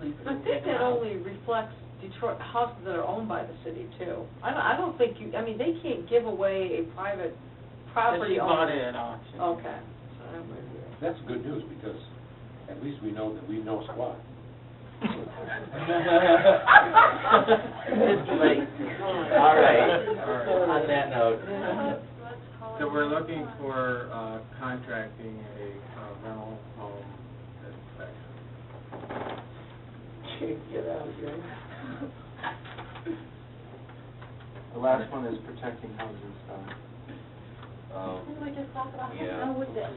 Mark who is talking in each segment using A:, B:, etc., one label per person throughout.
A: think that.
B: I think that only reflects Detroit, houses that are owned by the city too. I don't, I don't think you, I mean, they can't give away a private
A: That she
B: property
A: bought
B: owner.
A: it at auction.
B: Okay. So I'm with you.
C: That's good news, because at least we know that we know squat.
A: It's late.
D: All right, on that note.
E: So we're looking for uh, contracting a uh, rental home inspection.
A: Get out of here.
E: The last one is protecting housing stock.
D: um,
F: we just talked about,
D: Yeah.
F: how would that,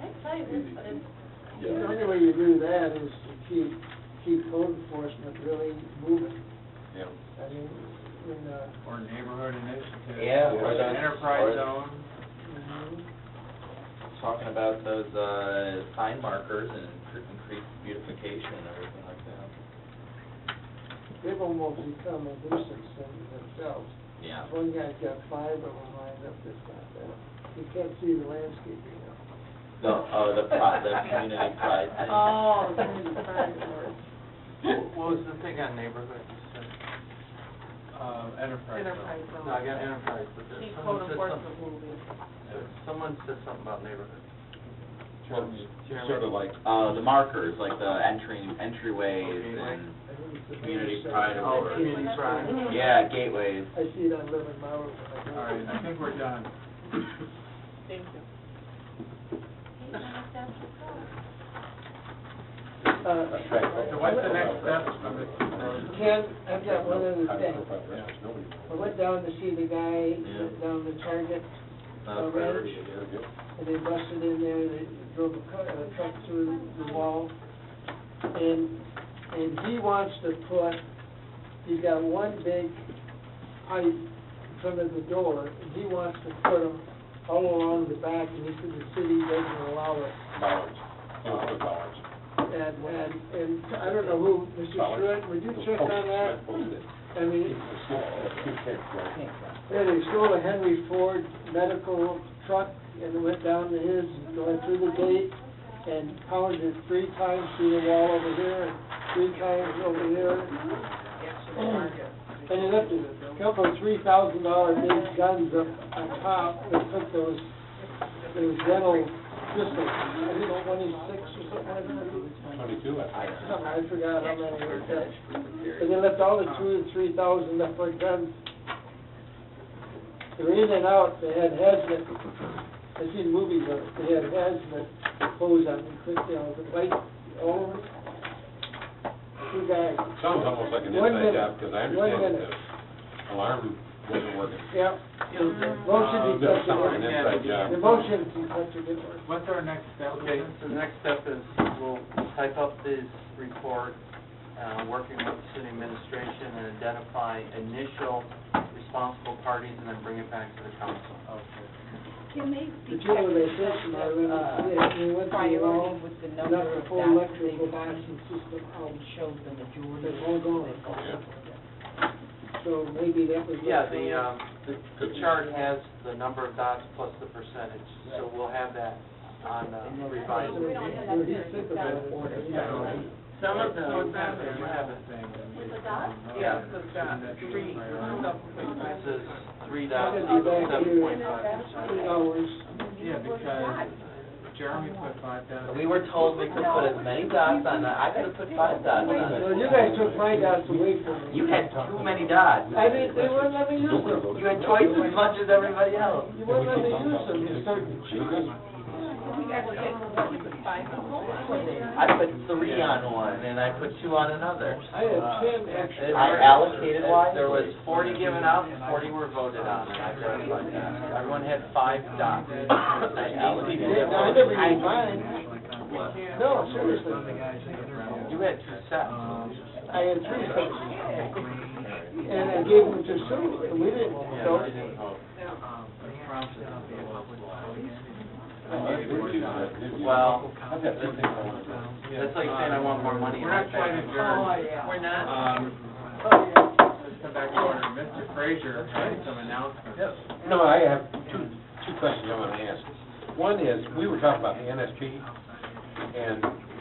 F: I tell you this, but it's,
A: The
D: Yeah,
A: only way you do that is to keep, keep code enforcement really moving.
D: yeah.
A: I mean, when, uh,
E: Or neighborhood initiative.
D: Yeah, or
E: Or
D: those-
E: enterprise
D: or-
E: zone.
A: mhm.
D: Talking about those, uh, sign markers and increased beautification and everything like that.
A: they've almost become a nuisance in themselves.
D: Yeah.
A: One guy's got five of them lined up this time, you can't see the landscaping now.
D: No, oh, the pro, the community pride thing.
B: Oh, community pride board.
E: What was the thing on neighborhood? Uh, enterprise zone.
F: Enterprise zone.
E: No, I got enterprise, but there's
F: keep
E: someone
F: code
E: said something.
F: enforcement moving.
E: Someone said something about neighborhood.
C: Sort of like,
D: Uh, the markers, like the entering,
E: Okay,
D: entryways
E: like-
D: and,
A: I think it's a
D: Community
A: nuisance.
D: pride
E: Oh, community pride.
D: yeah, gateways.
A: I see it on Living Miles when I go.
E: All right, I think we're done.
F: Thank you.
C: Attract-
E: So what's the next step on this road?
A: Uh, Ken, I've got one other thing.
C: Nobody.
A: I went down to see the guy
D: Yeah.
A: down the Target,
D: Not a priority, it is.
A: and they busted in there, they drove a car, a truck through the wall. And, and he wants to put, he's got one big pipe from the door, and he wants to put them all along the back, and he said the city doesn't allow it.
C: Bollards, it was the bollards.
A: And, and, and I don't know who, Mr.
C: Bollards.
A: Schmidt, would you check on that?
C: Posted it.
A: I mean, Yeah, they stole a Henry Ford medical truck and went down to his, and went through the gate and pounded it three times through the wall over here and three times over here. And it left a couple of three thousand dollar big guns up on top that took those, those rental pistols, I think twenty-six or something like that.
C: Twenty-two, I think.
A: Something, I forgot how many were that. And
D: Serious.
A: they left all the two and three thousand left for guns. They were in and out, they had hazmat, I've seen movies of it, they had hazmat hose on them, quick, you know, the light all over. Two guys,
C: Sounds almost like an
A: One
C: inside
A: minute.
C: job, because
A: One
C: I understand that
A: minute.
C: the alarm Uh, wasn't working.
A: yeah. Motion to
G: Uh,
C: That sounds like
A: such
C: an
E: Yeah.
C: inside
A: a, the
C: job.
A: motion to such a difference.
E: What's our next step?
G: Okay, so the next step is we'll type up this report, uh, working with the city administration and identify initial responsible parties and then bring it back to the council.
E: Okay.
F: Can they
A: The
F: be
A: general recession, I remember, yeah, we went through all,
F: priority with the
A: not
F: number
A: the
F: of
A: full
F: dots they
A: electrical
F: wanted
A: balancing system um, out,
F: and showed the majority.
A: they're all gone.
C: Oh, yeah.
A: So maybe that was.
G: Yeah, the, um, the- the chart has the number of dots plus the percentage, so we'll have that on uh, revised.
F: We don't have
A: Where
F: that
A: he
F: there,
A: said
F: it's out of
A: about it.
F: order.
A: Yeah.
E: Some
G: of them-
E: What's that there?
G: You have it.
E: With
F: the dot?
E: Yeah, with Three.
G: It says three
A: I'm
G: dots,
A: gonna be back
G: seven
A: here
G: point
A: in
G: five
A: three
G: percent.
A: hours.
E: Yeah, because Jeremy put five down.
D: We were told we could put as many dots on that, I gotta put five dots on
A: Well,
D: it.
A: you guys took my dots away from me.
D: You had too many dots.
A: I mean, they wouldn't let me use them.
D: You had twice as much as everybody else.
A: You wouldn't let me use them, you started cheating.
D: I put three on one, and I put two on another.
A: I had ten extra.
D: I allocated wisely.
G: There was forty given out, and forty were voted on, and I verified that. Everyone had five dots.
D: I allocated
A: Yeah,
D: it
A: no, I never used mine.
D: What?
A: No, seriously.
G: You had two sets.
E: um,
A: I had three sets. And
E: um,
A: I gave them to Sue, and we didn't,
G: Yeah,
A: so.
G: you didn't vote.
D: Well,
C: I've got two things I want to do.
G: That's like saying I want more money Oh, in my
E: We're not trying to
G: bank.
E: adjourn.
B: We're
E: Um,
G: Oh,
E: let's come back to order. Mr. Frazier had some announcements.
C: No, I have two, two questions I want to ask. One is, we were talking about the NSP, and